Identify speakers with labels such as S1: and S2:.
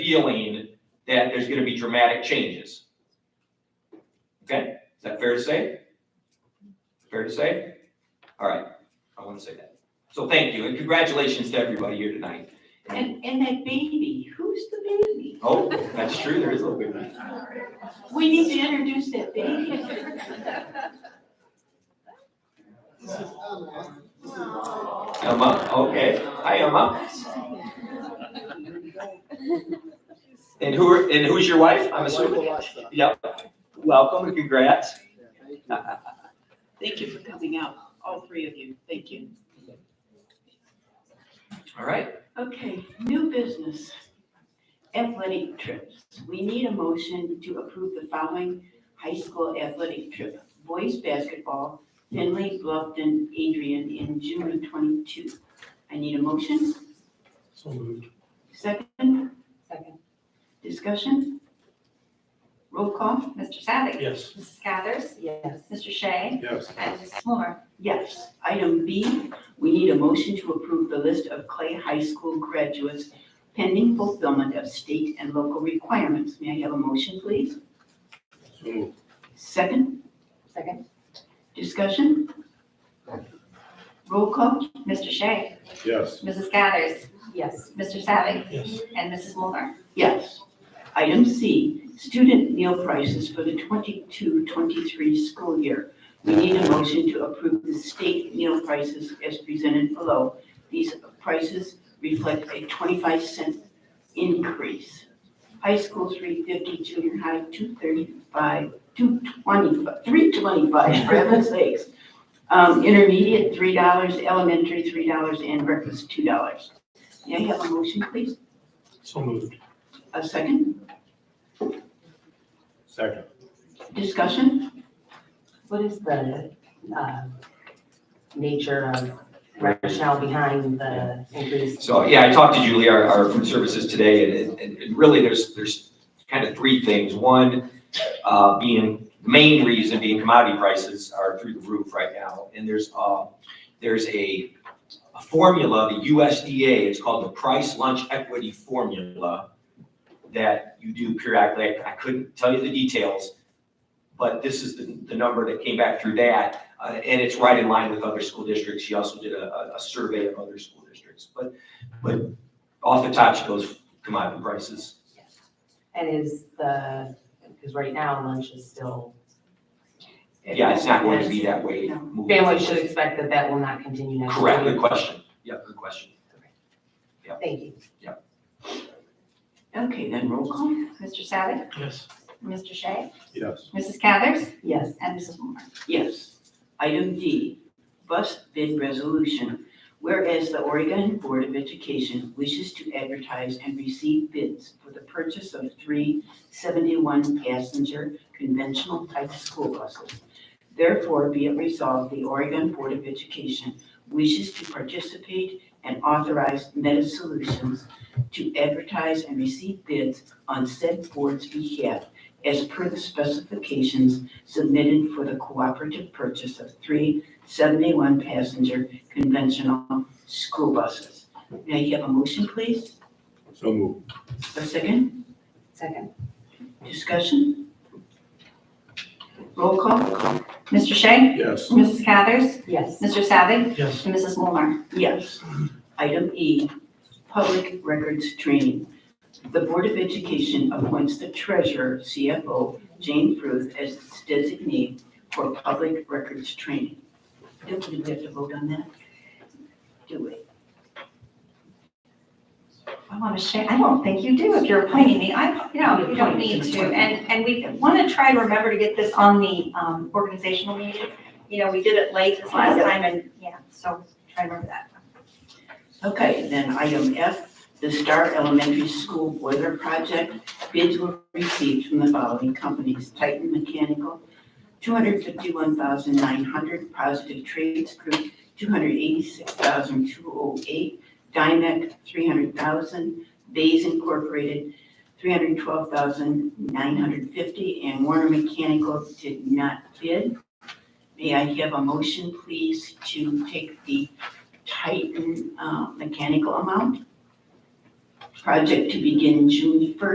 S1: feeling that there's gonna be dramatic changes. Okay, is that fair to say? Fair to say? All right, I want to say that. So thank you, and congratulations to everybody here tonight.
S2: And, and that baby, who's the baby?
S1: Oh, that's true, there is a little bit.
S2: We need to introduce that baby.
S1: Emma, okay, hi Emma. And who, are- and who's your wife? I'm assuming. Yep, welcome and congrats.
S2: Thank you for coming out, all three of you, thank you.
S1: All right,
S2: Okay, new business. Athletic trips. We need a motion to approve the following high school athletic trip. Boys basketball, Finley, Bluffton, Adrian, in June of twenty-two. I need a motion.
S3: So moved.
S2: Second,
S4: Second.
S2: discussion? Roll call?
S4: Mr. Savick.
S3: Yes.
S4: Mrs. Cathers. Yes. Mr. Shea.
S3: Yes.
S4: And Mrs. Moore.
S2: Yes. Item B, we need a motion to approve the list of Clay High School graduates pending fulfillment of state and local requirements. May I have a motion, please?
S3: So moved.
S2: Second,
S4: Second.
S2: discussion? Roll call?
S4: Mr. Shea.
S3: Yes.
S4: Mrs. Cathers. Yes. Mr. Savick.
S3: Yes.
S4: And Mrs. Moore.
S2: Yes. Item C, student meal prices for the 22-23 school year. We need a motion to approve the state meal prices as presented below. These prices reflect a 25 cent increase. High school 350, junior high 235, 225, 325, for heaven's sakes. Um, Intermediate, $3, elementary, $3, and breakfast, $2. May I have a motion, please?
S3: So moved.
S2: A second?
S3: Second.
S2: Discussion?
S5: What is the uh, nature of rationale behind the increase?
S1: so yeah, I talked to Julie, our, our food services today, and, and- and really there's, there's kind of three things. One, uh, being, the main reason being commodity prices are through the roof right now. And there's, uh, there's a, a formula, the USDA, it's called the Price Lunch Equity Formula that you do periodically. I couldn't tell you the details, but this is the, the number that came back through that. Uh, and it's right in line with other school districts. She also did a, a- a survey of other school districts. But off the top, she goes commodity prices.
S5: And is the, because right now lunch is still,
S1: Yeah, it's not going to be that way.
S2: No.
S1: moving
S5: families should
S1: forward.
S5: expect that that will not continue next year.
S1: Correct, good question. Yeah, good question.
S5: Thank you.
S2: Okay, then roll call.
S4: Mr. Savick.
S3: Yes.
S4: Mr. Shea.
S3: Yes.
S4: Mrs. Cathers.
S5: Yes,
S4: And Mrs. Moore.
S2: Yes. Item D, bus bid resolution. Whereas the Oregon Board of Education wishes to advertise and receive bids for the purchase of three 71-passenger conventional type school buses. Therefore, be it resolved, the Oregon Board of Education wishes to participate and authorize Meta Solutions to advertise and receive bids on said board's behalf as per the specifications submitted for the cooperative purchase of three 71-passenger conventional school buses. May I have a motion, please?
S3: So moved.
S2: A second?
S5: second.
S2: Discussion? Roll call?
S4: Mr. Shea.
S3: Yes.
S4: Mrs. Cathers.
S5: Yes,
S4: Mr. Savick.
S3: Yes.
S4: And Mrs. Moore.
S2: Yes. Item E, public records training. The Board of Education appoints the treasurer, CFO, Jane Fruth, as its designee for public records training. Don't we have to vote on that? Do we?
S4: I want to share, I don't think you do if you're appointing me. I, no, you don't need to. And, and we want to try to remember to get this on the um, organizational meeting. You know, we did it late this last time and, yeah, so try to remember that.
S2: Okay, then item F, the Star Elementary School Boiler Project. Bids were received from the following companies, Titan Mechanical, two hundred fifty-one thousand nine hundred, Positive Trades Group, two hundred eighty-six thousand two oh eight, Dymec, three hundred thousand, Bays Incorporated, three hundred twelve thousand nine hundred fifty, and Warner Mechanical did not bid. May I have a motion, please, to take the Titan uh, mechanical amount. Project to begin June first.